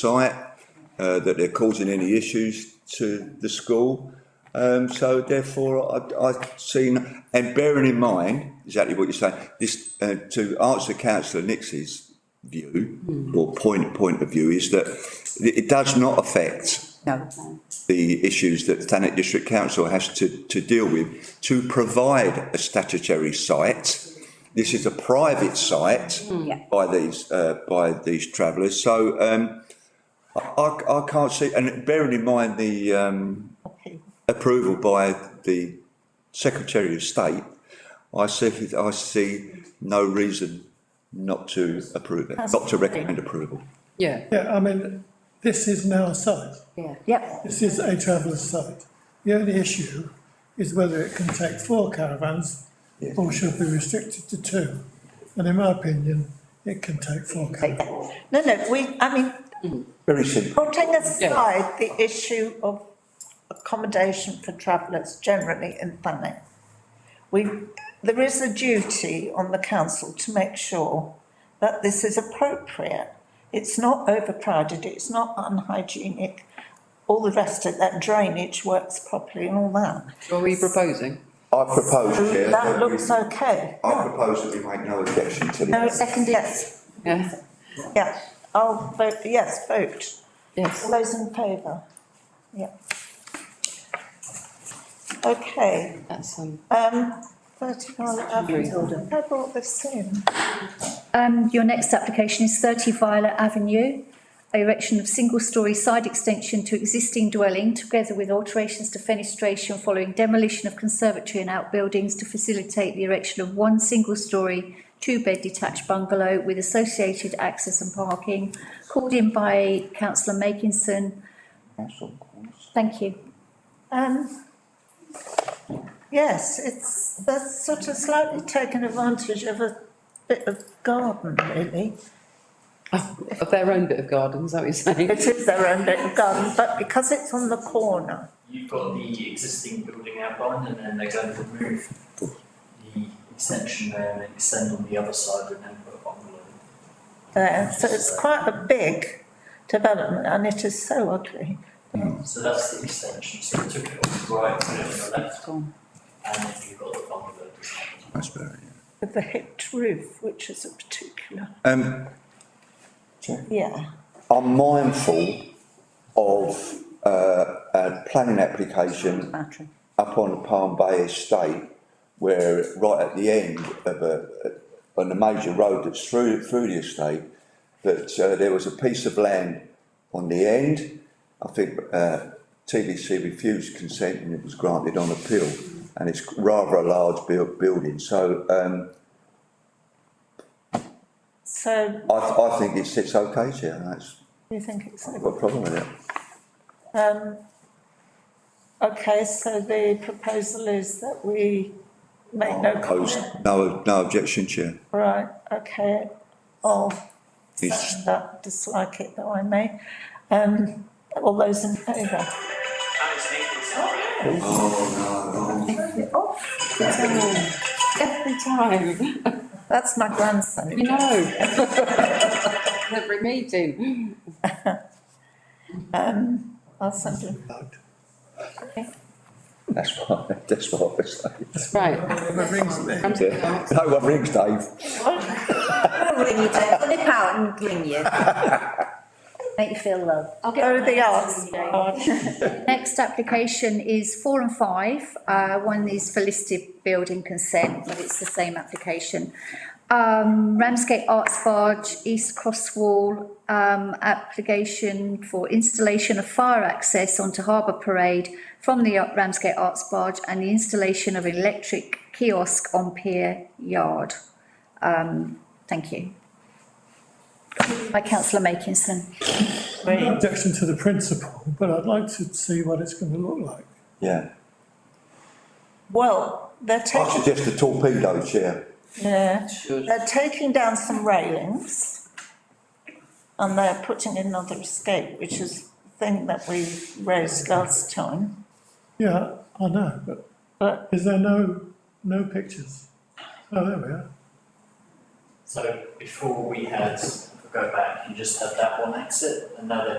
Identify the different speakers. Speaker 1: site, uh, that they're causing any issues to the school. Um, so therefore, I, I've seen, and bearing in mind exactly what you're saying, this, uh, to answer councillor Nix's view, or point, point of view, is that it, it does not affect
Speaker 2: No,
Speaker 1: the issues that Thanet District Council has to, to deal with to provide a statutory site. This is a private site
Speaker 3: Mm.
Speaker 2: Yeah.
Speaker 1: by these, uh, by these travellers, so, um, I, I- I can't see, and bearing in mind the, um, approval by the Secretary of State, I see, I see no reason not to approve it, not to recommend approval.
Speaker 4: Yeah,
Speaker 5: Yeah, I mean, this is now a site,
Speaker 2: yeah, yep,
Speaker 5: this is a traveller's site. The only issue is whether it can take four caravans or should be restricted to two. And in my opinion, it can take four
Speaker 2: take
Speaker 5: caravans.
Speaker 2: that.
Speaker 3: No, no, we, I mean,
Speaker 1: Very simple.
Speaker 3: putting aside the issue of accommodation for travellers generally in Thanet, we, there is a duty on the council to make sure that this is appropriate. It's not overcrowded, it's not unhygienic, all the rest of that drainage works properly and all that.
Speaker 4: are we proposing?
Speaker 1: I propose, Chair,
Speaker 3: That
Speaker 1: that we- Oh.
Speaker 3: looks okay.
Speaker 1: I propose that we make no objection to
Speaker 3: No,
Speaker 1: this.
Speaker 3: second, yes,
Speaker 4: Yeah,
Speaker 3: yeah, I'll vote, yes, vote. All
Speaker 4: yes.
Speaker 3: those in favour? Yeah. Okay,
Speaker 4: That's, um,
Speaker 3: um, thirty Violet
Speaker 4: Agree.
Speaker 3: Avenue, I brought this in.
Speaker 6: Um, your next application is thirty Violet Avenue. Erection of single-storey side extension to existing dwelling together with alterations to fenestration following demolition of conservatory and outbuildings to facilitate the erection of one single-storey, two-bed detached bungalow with associated access and parking, called in by councillor Makinson. Thank you.
Speaker 3: Um, yes, it's, that's sort of slightly taken advantage of a bit of garden, really.
Speaker 4: of their own bit of garden, is oh, that what you're saying?
Speaker 3: It is their own little garden, but because it's on the corner,
Speaker 7: You've got the existing building outlined and then they're going to remove the extension there and extend on the other side and then put a bungalow.
Speaker 3: there, so it's quite a big development and it is so ugly.
Speaker 7: So that's the extension, so it took it off the right, put it on the left. And then you've got the bungalow.
Speaker 1: That's better.
Speaker 3: With the hipped roof, which is a particular,
Speaker 1: Um,
Speaker 3: yeah.
Speaker 1: I'm mindful of uh, a planning application
Speaker 2: Battery.
Speaker 1: up on Palm Bay Estate, where right at the end of a, on a major road that's through, through the estate, that uh, there was a piece of land on the end. I think uh, TDC refused consent and it was granted on appeal. And it's rather a large built building, so um,
Speaker 3: So
Speaker 1: I, I think it sits okay, Chair. That's,
Speaker 3: you think it's
Speaker 1: I've
Speaker 3: over?
Speaker 1: got a problem with it.
Speaker 3: Um, okay, so the proposal is that we make no
Speaker 1: Opposed?
Speaker 3: comment.
Speaker 1: No, no objection, Chair.
Speaker 3: Right, okay, I'll
Speaker 1: It's-
Speaker 3: second that, dislike it though I may. Um, all those in favour? Oh,
Speaker 4: Every time,
Speaker 3: That's my grandson.
Speaker 4: you know. Every meeting.
Speaker 3: I'll send him.
Speaker 1: That's why, that's why I was saying.
Speaker 4: Right,
Speaker 5: Whoever rings me,
Speaker 4: come to the arts.
Speaker 1: No one rings, Dave.
Speaker 2: Ring you, Dave. nip out and ring you.
Speaker 6: Make you feel loved.
Speaker 3: Oh, the arts. Oh,
Speaker 6: Next application is four and five. Uh, one is for listed building consent, but it's the same application. Um, Ramsgate Arts Barge, East Cross Wall, um, application for installation of fire access onto Harbour Parade from the Ramsgate Arts Barge and the installation of electric kiosk on Pier Yard. Um, thank you. By councillor Makinson.
Speaker 5: no objection to the principle, but I'd like to see what it's going to look like.
Speaker 1: Yeah.
Speaker 3: Well, they're
Speaker 1: I
Speaker 3: taking,
Speaker 1: suggest a torpedo chair.
Speaker 3: yeah.
Speaker 4: Should.
Speaker 3: They're taking down some railings and they're putting in another escape, which is the thing that we raised last time.
Speaker 5: Yeah, I know, but
Speaker 3: But
Speaker 5: is there no, no pictures? Oh, there we are.
Speaker 7: So before we had go back, you just had that one exit, and now they're